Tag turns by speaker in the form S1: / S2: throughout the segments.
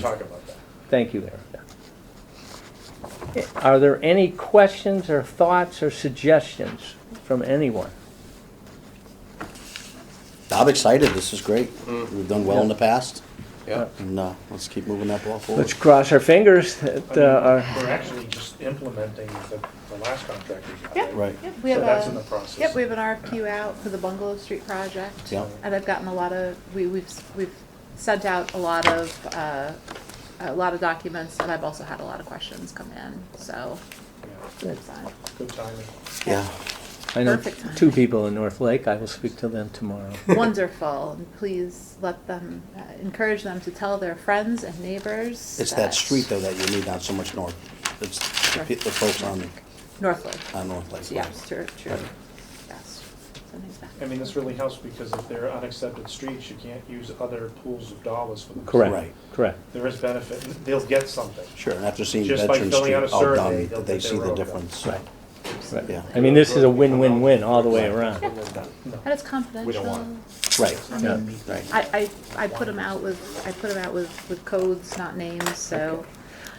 S1: talk about that.
S2: Thank you, Erica. Are there any questions or thoughts or suggestions from anyone?
S3: I'm excited. This is great. We've done well in the past,
S1: Yeah.
S3: and uh, let's keep moving that ball forward.
S2: Let's cross our fingers that, uh,
S1: We're actually just implementing the, the last contract we got.
S4: Yeah.
S3: Right.
S4: Yep, we
S1: So
S4: have
S1: that's in the
S4: a,
S1: process.
S4: yep, we have an RFQ out for the Bungalow Street project.
S3: Yeah.
S4: And I've gotten a lot of, we, we've, s- we've sent out a lot of, uh, a lot of documents, and I've also had a lot of questions come in, so.
S1: Yeah.
S4: it's fine.
S1: Good timing.
S3: Yeah.
S2: I know
S4: Perfect.
S2: two people in North Lake. I will speak to them tomorrow.
S4: Wonderful, and please let them, uh, encourage them to tell their friends and neighbors.
S3: It's that street though that you need, not so much north. It's the, pe- the folks on,
S4: Northwood,
S3: on North Lake.
S4: yeah, it's true, true, yes. Something's back.
S1: I mean, this really helps because if they're unaccepted streets, you can't use other pools of dollars for them.
S2: Correct,
S3: Right.
S2: correct.
S1: There is benefit, and they'll get something.
S3: Sure, and after seeing
S1: Just by
S3: Veteran
S1: filling
S3: Street
S1: out a
S3: all
S1: survey,
S3: done,
S1: they'll
S3: they
S1: get
S3: see
S1: their
S3: the
S1: road done.
S3: difference.
S2: Right,
S3: Right. Yeah.
S2: I mean, this is a win-win-win all the way around.
S4: And it's confidential.
S1: want
S3: Right,
S2: Yeah.
S3: right.
S4: I, I, I put them out with, I put 'em out with, with codes, not names, so.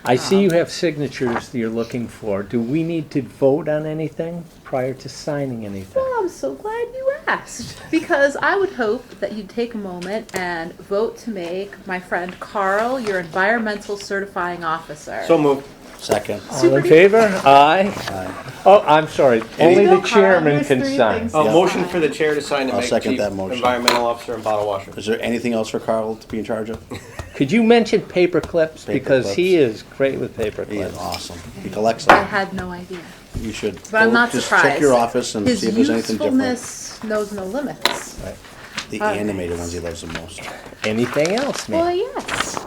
S2: I see you have signatures that you're looking for. Do we need to vote on anything prior to signing anything?
S4: Well, I'm so glad you asked, because I would hope that you'd take a moment and vote to make my friend Carl your environmental certifying officer.
S5: So moved.
S3: Second.
S2: All in favor? Aye.
S3: Aye.
S2: Oh, I'm sorry. Only
S4: No,
S2: the
S4: Carl,
S2: chairman
S4: there's
S2: can
S4: three
S2: sign.
S4: things.
S5: A
S3: Yeah.
S5: motion for the chair to sign and
S3: I'll
S5: make
S3: second
S5: chief
S3: that motion.
S5: environmental officer and bottle washer.
S3: Is there anything else for Carl to be in charge of?
S2: Could you mention paper clips? Because he is great with paper
S3: He is
S2: clips.
S3: awesome. He collects
S4: I
S3: them.
S4: had no idea,
S3: You should.
S4: but I'm
S3: go-
S4: not
S3: just
S4: surprised.
S3: Check your office and see if there's anything different.
S4: His usefulness knows no limits.
S2: Right.
S3: The
S4: Alright.
S3: animated ones he loves the most.
S2: Anything else,
S4: Well,
S2: ma'am?
S4: yes.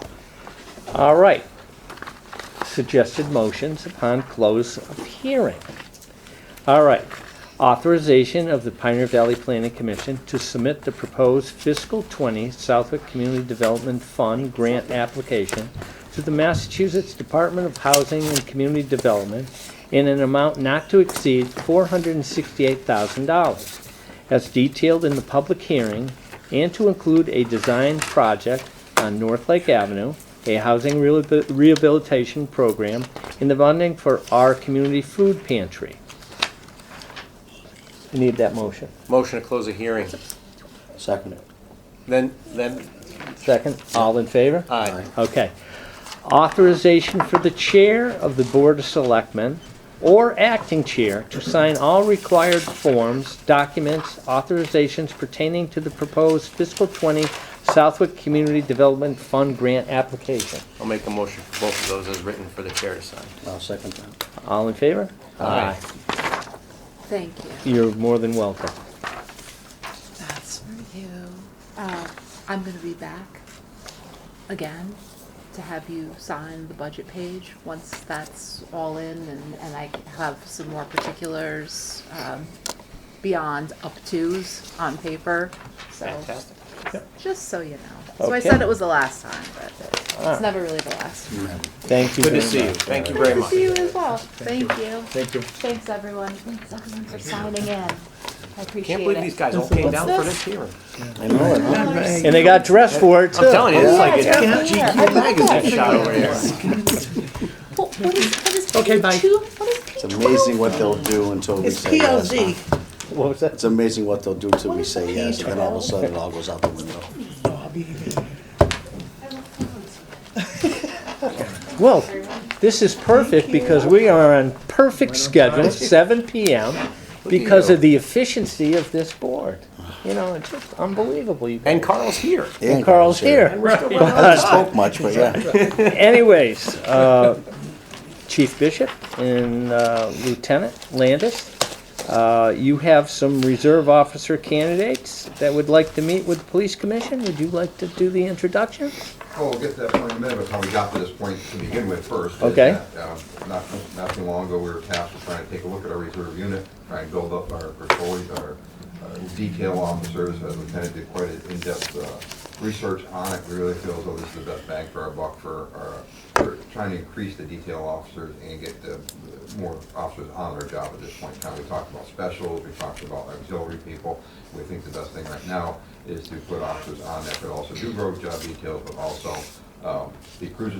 S2: All right. Suggested motions upon close of hearing. All right. Authorization of the Pioneer Valley Planning Commission to submit the proposed fiscal 20 Southwick Community Development Fund grant application to the Massachusetts Department of Housing and Community Development in an amount not to exceed $468,000, as detailed in the public hearing, and to include a design project on North Lake Avenue, a housing rehabil- rehabilitation program, and the funding for our community food pantry. I need that motion.
S5: Motion to close a hearing.
S3: Second.
S5: Then, then,
S2: Second, all in favor?
S5: aye.
S2: Okay. Authorization for the chair of the Board of Selectmen or acting chair to sign all required forms, documents, authorizations pertaining to the proposed fiscal 20 Southwick Community Development Fund grant application.
S5: I'll make a motion for both of those as written for the chair to sign.
S3: I'll second that.
S2: All in favor?
S5: Aye.
S4: Thank you.
S2: You're more than welcome.
S4: That's for you. Uh, I'm gonna be back again to have you sign the budget page once that's all in and, and I have some more particulars, um, beyond up tos on paper, so.
S5: Fantastic.
S4: Just so you know. So I
S2: Okay.
S4: said it was the last time, but it's never really the last.
S2: Thank you very
S5: Good to
S2: much.
S5: see you. Thank you
S4: Nice
S5: Ah. very
S4: to
S5: much.
S4: see you as well. Thank you.
S1: Thank you.
S4: Thanks, everyone. Thanks, everyone, for signing in. I appreciate
S5: Can't
S4: it.
S5: believe these guys all came down for this hearing.
S3: I know it, huh?
S2: And they got dressed for it, too.
S5: I'm telling you, it's like
S4: Yeah,
S5: a
S4: it's right there.
S5: GQ magazine shot over here.
S4: Well, What is, what is page two? What is page
S3: It's amazing what they'll do until we
S6: It's
S3: say yes.
S6: PLZ.
S2: What was that?
S3: It's amazing what they'll do until we say yes, and then all of a sudden it all goes out the window.
S4: Oh,
S2: Well, this is perfect because we are on perfect schedule, seven PM, because of the efficiency of this board. You know, it's just unbelievable. You-
S5: And Carl's here.
S2: And Carl's here.
S3: I spoke much, but yeah.
S2: Anyways, uh, Chief Bishop and uh, Lieutenant Landis, uh, you have some reserve officer candidates that would like to meet with the police commission. Would you like to do the introduction?
S7: Oh, Well, we'll get to that point in a minute, but how we got to this point to begin with first. is
S2: Okay.
S7: that, uh, Not, not too long ago, we were tasked with trying to take a look at our reserve unit, try and build up our patrols, our uh, detail officers. Uh, Lieutenant did quite an in-depth uh, research on it. We really feel as though this is the best bang for our buck for, our- for trying to increase the detail officers and get the the more officers on their job at this point in time. We talked about specials, we talked about auxiliary people. We think the best thing right now is to put officers on that could also do road job details, but also uh, Um, The cruiser